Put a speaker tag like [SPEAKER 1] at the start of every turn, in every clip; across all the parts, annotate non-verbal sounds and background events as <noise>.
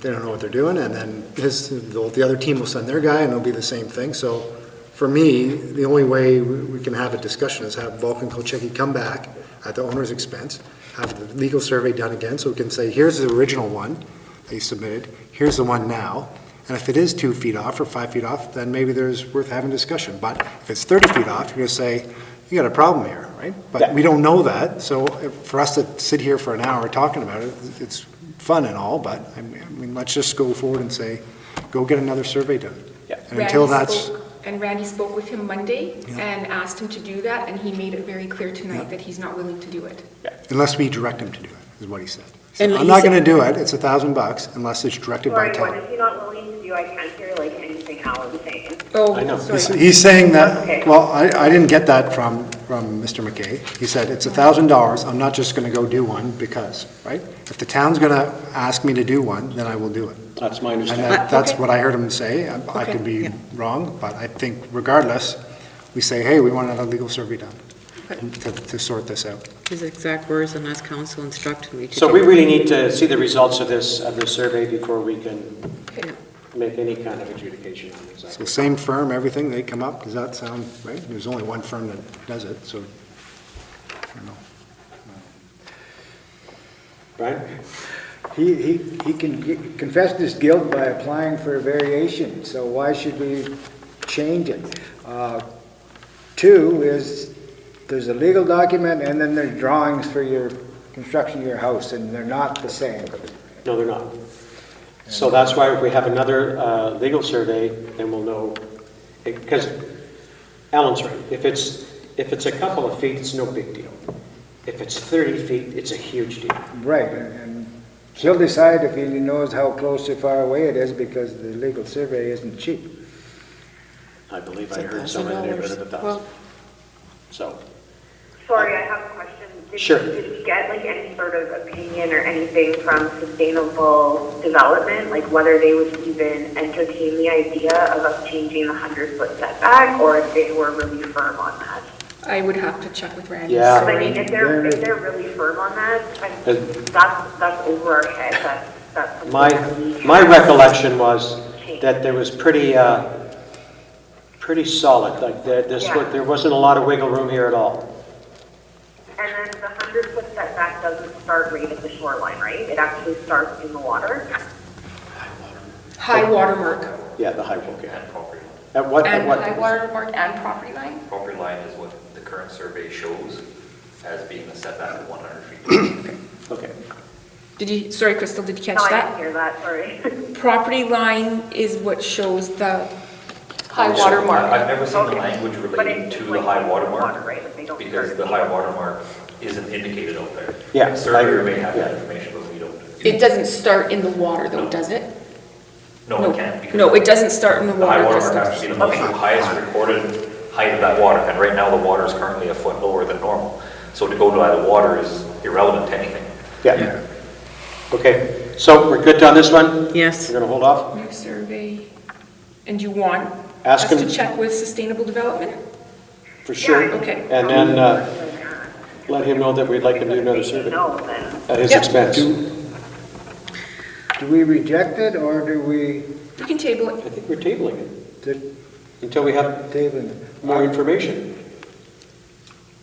[SPEAKER 1] they don't know what they're doing, and then his, the the other team will send their guy, and it'll be the same thing. So for me, the only way we we can have a discussion is have Vulcan Kolchicki come back at the owner's expense, have the legal survey done again, so we can say, here's the original one they submitted, here's the one now. And if it is two feet off or five feet off, then maybe there's worth having discussion. But if it's 30 feet off, you're going to say, you got a problem here, right? But we don't know that, so if- for us to sit here for an hour talking about it, it's fun and all, but I mean- I mean, let's just go forward and say, go get another survey done.
[SPEAKER 2] Yeah.
[SPEAKER 1] And until
[SPEAKER 3] Randy
[SPEAKER 1] that's,
[SPEAKER 3] spoke- And Randy spoke with him Monday
[SPEAKER 1] Yeah.
[SPEAKER 3] and asked him to do that, and he made it very clear tonight that he's not willing to do it.
[SPEAKER 1] unless we direct him to do it, is what he said. He said,
[SPEAKER 4] And
[SPEAKER 1] I'm
[SPEAKER 4] he
[SPEAKER 1] not
[SPEAKER 4] said-
[SPEAKER 1] going to do it, it's a thousand bucks unless it's directed by
[SPEAKER 5] Sorry, what
[SPEAKER 1] Tom.
[SPEAKER 5] is he not willing to do? I can't hear like anything Alan's saying.
[SPEAKER 3] Oh,
[SPEAKER 2] I know.
[SPEAKER 1] He's-
[SPEAKER 3] sorry.
[SPEAKER 1] He's saying that,
[SPEAKER 5] Okay.
[SPEAKER 1] well, I, I didn't get that from, from Mr. McKay. He said, it's a thousand dollars, I'm not just going to go do one because, right? If the town's going to ask me to do one, then I will do it.
[SPEAKER 2] That's my
[SPEAKER 1] And
[SPEAKER 2] understanding.
[SPEAKER 1] that,
[SPEAKER 4] Uh,
[SPEAKER 1] that's
[SPEAKER 4] okay.
[SPEAKER 1] what I heard him say. I I could be wrong, but I think regardless, we say, hey, we want another legal survey done to, to sort this out.
[SPEAKER 4] His exact words, and as council instructed me to do.
[SPEAKER 2] So we really need to see the results of this, of this survey before we can
[SPEAKER 3] Okay.
[SPEAKER 2] make any kind of adjudication on these.
[SPEAKER 1] So same firm, everything, they come up, does that sound right? There's only one firm that does it, so, I don't know.
[SPEAKER 2] Brian?
[SPEAKER 6] He, he, he can g- confessed his guilt by applying for a variation, so why should we change it? Uh, Two is, there's a legal document, and then there's drawings for your construction of your house, and they're not the same.
[SPEAKER 2] No, they're not. So that's why if we have another uh, legal survey, then we'll know, because Alan's right. If it's, if it's a couple of feet, it's no big deal. If it's 30 feet, it's a huge deal.
[SPEAKER 6] Right, and and he'll decide if he knows how close or far away it is, because the legal survey isn't cheap.
[SPEAKER 2] I believe
[SPEAKER 4] It's a
[SPEAKER 2] I heard
[SPEAKER 4] thousand
[SPEAKER 2] somewhere in the neighborhood of a
[SPEAKER 4] dollars. Well,
[SPEAKER 2] thousand. So,
[SPEAKER 5] Sorry, I have a question. Did-
[SPEAKER 2] Sure.
[SPEAKER 5] Did we get like any sort of opinion or anything from sustainable development? Like whether they would even entertain the idea of us changing the hundred foot setback or if they were really firm on that?
[SPEAKER 3] I would have to check with Randy.
[SPEAKER 2] Yeah.
[SPEAKER 5] I
[SPEAKER 3] sorry.
[SPEAKER 5] mean, if they're, if they're really firm on that, I-
[SPEAKER 2] Uh,
[SPEAKER 5] that's, that's over our head. That's, that's. something
[SPEAKER 2] my,
[SPEAKER 5] that we
[SPEAKER 2] my
[SPEAKER 5] have to
[SPEAKER 2] recollection was that there was pretty, uh, pretty solid, like, there- this, wa-
[SPEAKER 5] Yeah.
[SPEAKER 2] there wasn't a lot of wiggle room here at all.
[SPEAKER 5] And then the hundred foot setback doesn't start right at the shoreline, right? It actually starts in the water.
[SPEAKER 3] High watermark.
[SPEAKER 2] Yeah, the high wall, yeah.
[SPEAKER 7] Property
[SPEAKER 2] At what, at
[SPEAKER 3] And
[SPEAKER 2] what?
[SPEAKER 3] high watermark and property line?
[SPEAKER 7] property line is what the current survey shows as being a setback of 100 feet.
[SPEAKER 2] Okay.
[SPEAKER 3] Did you, sorry, Crystal, did you catch
[SPEAKER 5] No, I didn't
[SPEAKER 3] that?
[SPEAKER 5] hear that, sorry.
[SPEAKER 3] Property line is what shows the high
[SPEAKER 7] So,
[SPEAKER 3] water mark.
[SPEAKER 7] I've never seen the
[SPEAKER 5] Okay.
[SPEAKER 7] language
[SPEAKER 5] But
[SPEAKER 7] relating
[SPEAKER 5] it's
[SPEAKER 7] to the
[SPEAKER 5] like
[SPEAKER 7] high
[SPEAKER 5] in
[SPEAKER 7] water
[SPEAKER 5] water, right? Like they don't
[SPEAKER 7] mark, because
[SPEAKER 5] start
[SPEAKER 7] the
[SPEAKER 5] at
[SPEAKER 7] high
[SPEAKER 5] the-
[SPEAKER 7] water mark isn't indicated out there.
[SPEAKER 2] Yeah,
[SPEAKER 7] The Surveyor
[SPEAKER 2] I-
[SPEAKER 7] may have that
[SPEAKER 2] yeah.
[SPEAKER 7] information, but we don't.
[SPEAKER 3] It doesn't start in the water though, does it?
[SPEAKER 7] No, it can't. because
[SPEAKER 3] No, it doesn't start in the
[SPEAKER 7] The high
[SPEAKER 3] water.
[SPEAKER 7] water
[SPEAKER 3] Crystal.
[SPEAKER 7] mark has to be the most highest recorded height of that water, and right now the water is currently a foot lower than normal. So to go by the water is irrelevant to anything.
[SPEAKER 2] Yeah. Okay, so we're good on this one?
[SPEAKER 4] Yes.
[SPEAKER 2] We're gonna hold off?
[SPEAKER 3] New survey. And you want us
[SPEAKER 2] Ask him-
[SPEAKER 3] to check with sustainable development?
[SPEAKER 2] For sure.
[SPEAKER 3] Okay.
[SPEAKER 2] And then uh, let him know that we'd like him to do another
[SPEAKER 5] <laughs>
[SPEAKER 2] survey
[SPEAKER 5] No, then.
[SPEAKER 2] at his
[SPEAKER 3] Yep.
[SPEAKER 2] expense.
[SPEAKER 6] Do we reject it, or do we
[SPEAKER 3] You can table it.
[SPEAKER 2] I think we're tabling it
[SPEAKER 6] t-
[SPEAKER 2] until we have
[SPEAKER 6] table it? Uh,
[SPEAKER 2] more information.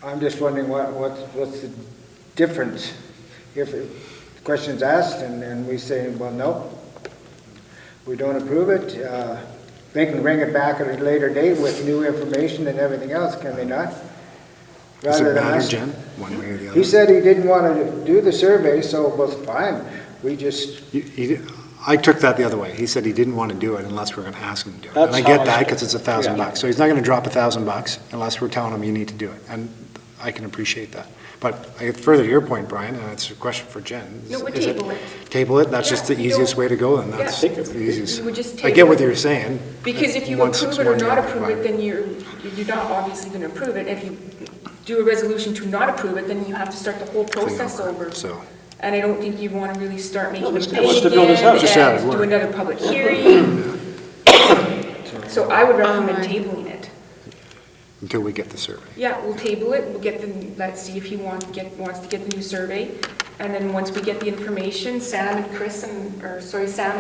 [SPEAKER 6] I'm just wondering what, what's, what's the difference? If the question's asked and, and we say, well, no, we don't approve it, uh, they can bring it back at a later date with new information and everything else, can they not?
[SPEAKER 1] Does
[SPEAKER 6] Rather
[SPEAKER 1] it
[SPEAKER 6] than
[SPEAKER 1] matter,
[SPEAKER 6] us-
[SPEAKER 1] Jen, one way or the other?
[SPEAKER 6] He said he didn't want to do the survey, so, well, fine, we just,
[SPEAKER 1] He- he- I took that the other way. He said he didn't want to do it unless we're going to ask him to do it. And I
[SPEAKER 2] That's how I
[SPEAKER 1] get that
[SPEAKER 2] took it.
[SPEAKER 1] because it's a thousand
[SPEAKER 2] Yeah.
[SPEAKER 1] bucks. So he's not going to drop a thousand bucks unless we're telling him you need to do it. And I can appreciate that. But I- further to your point, Brian, and it's a question for Jen.
[SPEAKER 3] No, we
[SPEAKER 1] is it-
[SPEAKER 3] table it.
[SPEAKER 1] Table it? That's
[SPEAKER 3] Yeah,
[SPEAKER 1] just the
[SPEAKER 3] we don't-
[SPEAKER 1] easiest way to go and
[SPEAKER 3] Yeah.
[SPEAKER 1] that's
[SPEAKER 2] I think it
[SPEAKER 1] the
[SPEAKER 2] would be.
[SPEAKER 1] easiest.
[SPEAKER 3] We would just
[SPEAKER 1] I
[SPEAKER 3] table
[SPEAKER 1] get what
[SPEAKER 3] it.
[SPEAKER 1] you're saying.
[SPEAKER 3] Because if you
[SPEAKER 1] Once
[SPEAKER 3] approve
[SPEAKER 1] it's
[SPEAKER 3] it or
[SPEAKER 1] one,
[SPEAKER 3] not
[SPEAKER 1] you're
[SPEAKER 3] approve it,
[SPEAKER 1] required.
[SPEAKER 3] then you're, you're not obviously going to approve it. If you do a resolution to not approve it, then you have to start the whole process over.
[SPEAKER 1] So,
[SPEAKER 3] And I don't think you want to really start making
[SPEAKER 2] let's-
[SPEAKER 3] it
[SPEAKER 2] let's
[SPEAKER 3] big
[SPEAKER 2] build this out.
[SPEAKER 3] and
[SPEAKER 1] Just have it
[SPEAKER 3] do
[SPEAKER 1] work.
[SPEAKER 3] another public hearing. So I would recommend tabling it.
[SPEAKER 1] until we get the survey.
[SPEAKER 3] Yeah, we'll table it, we'll get the, let's see if he wants, get, wants to get the new survey. And then once we get the information, Sam and Chris and, or sorry, Sam